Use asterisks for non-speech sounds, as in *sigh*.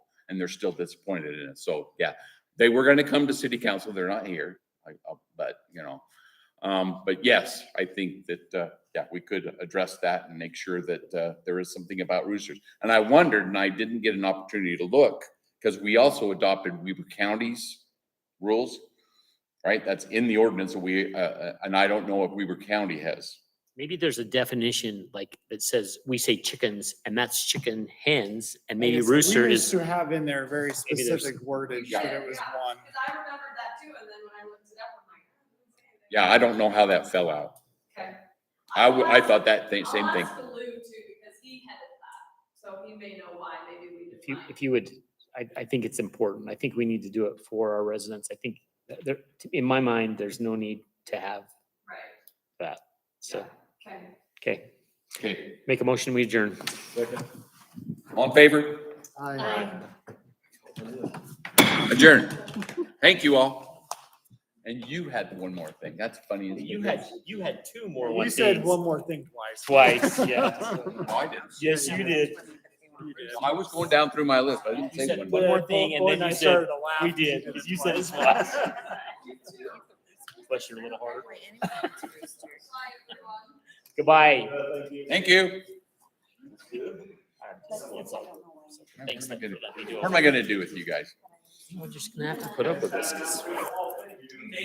and they're still disappointed in it. So, yeah, they were going to come to city council. They're not here, I- I- but, you know. Um, but yes, I think that, uh, yeah, we could address that and make sure that, uh, there is something about roosters. And I wondered, and I didn't get an opportunity to look, because we also adopted Weber County's rules, right? That's in the ordinance, and we, uh, uh, and I don't know if Weber County has. Maybe there's a definition like that says, we say chickens and that's chicken hens and maybe Yes, rooster We is. used to have in there very Maybe there's- specific wordage that it was Yeah, one. Cause I remembered that too, and then when I looked it up, I'm like. "Oh, that's okay." Yeah, I don't know how that fell out. Okay. I, w- I thought that thing, same I'll thing. ask Lou too, because he headed that, so he may know why, maybe we If you, define. if you would, I, I think it's important. I think we need to do it for our residents. I think that there, in my mind, there's no need to have Right, that. So, okay. okay, Okay, make a motion, we adjourn. all in favor? I- Adjourn. Thank you all. And you had one more thing. That's funny. as You can had, be. you had two more You one said days. one more thing twice. Twice, *laughs* yeah. No, Oh, I didn't. Yes, you did. I was going down through my list, but I didn't You say said one. one more. more Yeah, thing, and boy, then you I said, started to laugh. "We did," 'cause you said it twice. Bless you a little harder. Bye, everyone. *laughs* Goodbye. Thank you. Thanks for letting me do What it. am I gonna do with you guys? We're just gonna have to put up with this. 'cause